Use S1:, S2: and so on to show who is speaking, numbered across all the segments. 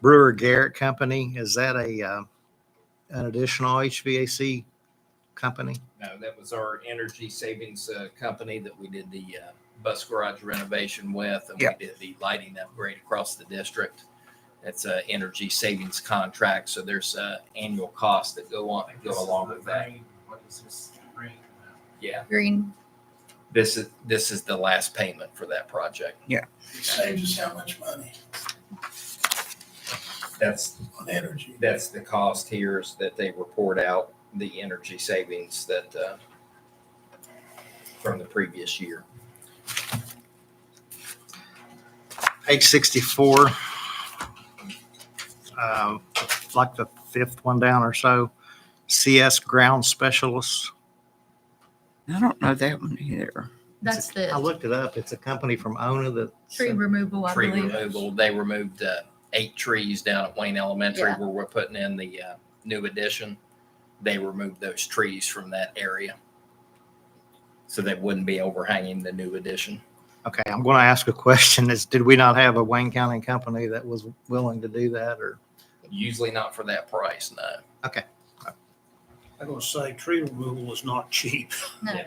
S1: Brewer Garrett Company, is that a, uh, an additional HVAC company?
S2: No, that was our energy savings uh, company that we did the uh, bus garage renovation with, and
S1: Yeah.
S2: we did the lighting upgrade across the district. That's an energy savings contract, so there's uh, annual costs that go on go along with that.
S3: What is this green?
S2: Yeah,
S4: Green.
S2: this is this is the last payment for that project.
S3: Saves us how much money
S2: That's
S3: on energy?
S2: that's the cost here is that they report out the energy savings that uh, from the previous year.
S1: Page sixty-four. um, Like the fifth one down or so, CS Ground Specialists.
S5: I don't know that one either.
S4: That's
S1: I
S4: the
S1: looked it up. It's a company from Ona that.
S4: tree removal, I
S2: tree
S4: believe.
S2: removal. They removed uh, eight trees down at Wayne Elementary
S4: Yeah.
S2: where we're putting in the uh, new addition. They removed those trees from that area. So they wouldn't be overhanging the new addition.
S1: Okay, I'm going to ask a question. Is, did we not have a Wayne County company that was willing to do that or?
S2: Usually not for that price, no.
S6: I'm gonna say tree removal is not cheap.
S4: No,
S2: Yeah.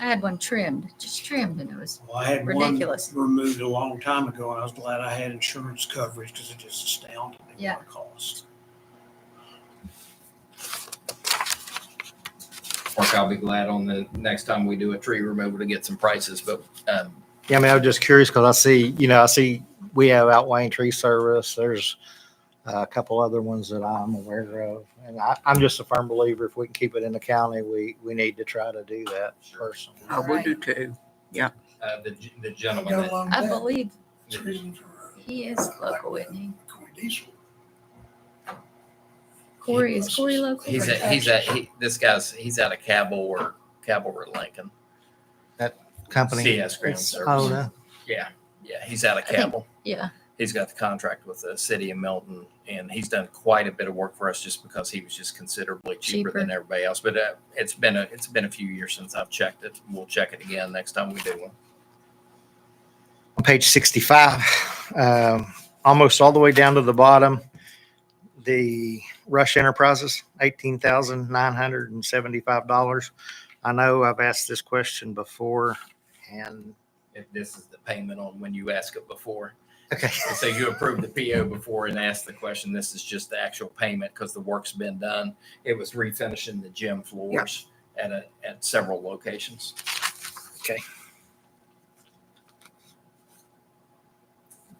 S4: I had one trimmed, just trimmed, and it was
S6: Well, I had one
S4: ridiculous.
S6: removed a long time ago, and I was glad I had insurance coverage because it just astounded me
S4: Yeah.
S6: what it cost.
S2: Mark, I'll be glad on the next time we do a tree removal to get some prices, but um,
S1: Yeah, I mean, I'm just curious because I see, you know, I see we have out Wayne Tree Service. There's uh, a couple other ones that I'm aware of. And I, I'm just a firm believer if we can keep it in the county, we, we need to try to do that personally.
S5: I would do too.
S2: uh, the g- the
S3: Go
S2: gentleman that
S3: along with
S4: I
S3: that.
S4: believe
S3: It's a reason for
S4: he is local, isn't he?
S3: Corey Diesel.
S4: Corey, is Corey local?
S2: he's at, he's at, he, this guy's, he's out of Cabell or Cabell or Lincoln.
S1: Company.
S2: CS Ground
S4: It's
S1: Oh,
S2: Service.
S1: no.
S2: Yeah, yeah, he's out of
S4: I think-
S2: Cabell.
S4: Yeah,
S2: he's got the contract with the city of Milton, and he's done quite a bit of work for us just because he was just considerably cheaper, than everybody else. But uh, it's been a it's been a few years since I've checked it. We'll check it again next time we do one.
S1: On page 65, um, almost all the way down to the bottom, the Rush Enterprises, $18,975. I know I've asked this question before and,
S2: If this is the payment on when you ask it before,
S1: okay.
S2: so you approved the PO before and asked the question. This is just the actual payment because the work's been done. It was refinishing the gym floors at a, at several locations.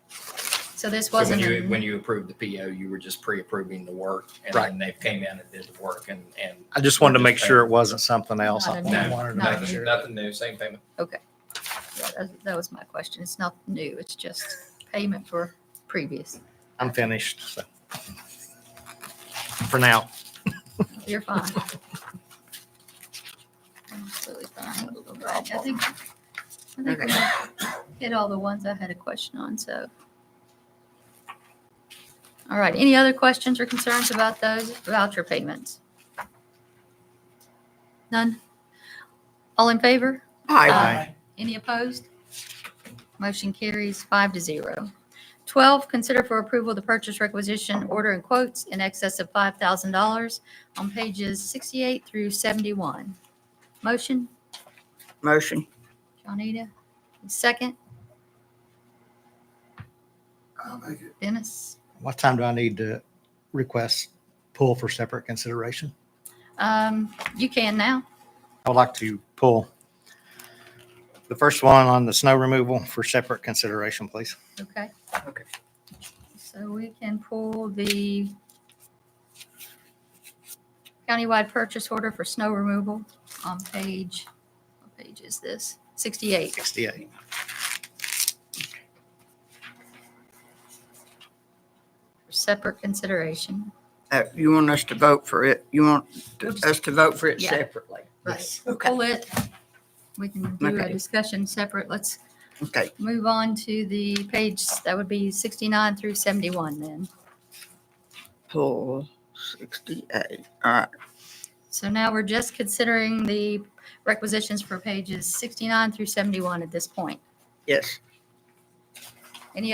S4: so this
S2: So when
S4: wasn't,
S2: you when
S4: a-
S2: you approved the PO, you were just pre-approving the work, and
S1: Right.
S2: then they came in and did the work and and
S1: I just wanted to
S2: We're
S1: make
S2: just
S1: sure
S2: paying.
S1: it wasn't something else. I
S4: Not a new-
S1: wanted to
S4: not a
S1: make
S4: new-
S1: sure.
S2: Nothing new, same payment.
S4: yeah, that- that was my question. It's not new, it's just payment for previous.
S1: I'm finished, so. For now.
S4: You're fine. Absolutely fine. All right, I think, I think we hit all the ones I had a question on, so. All right, any other questions or concerns about those voucher payments? None? All in favor?
S5: Aye.
S1: Aye.
S4: Any opposed? Motion carries five to zero. Twelve, consider for approval the purchase requisition order and quotes in excess of five thousand dollars on pages sixty-eight through seventy-one. Motion,
S5: Motion.
S4: Johnita. Second,
S3: I'll make it.
S4: Dennis.
S1: What time do I need to request pull for separate consideration?
S4: Um, you can now.
S1: I would like to pull the first one on the snow removal for separate consideration, please.
S4: Okay.
S5: Okay.
S4: So we can pull the countywide purchase order for snow removal on page, what page is this? Sixty-eight.
S1: Sixty-eight.
S4: for separate consideration.
S5: Uh, you want us to vote for it? You want to-
S4: Oops.
S5: us to vote for it
S4: Yeah.
S5: separately?
S4: Right.
S5: Okay.
S4: Pull it. We can do a
S5: Okay.
S4: discussion separate. Let's
S5: Okay.
S4: move on to the page, that would be 69 through 71 then.
S5: Pull sixty-eight. All right.
S4: So now we're just considering the requisitions for pages 69 through 71 at this point.
S5: Yes.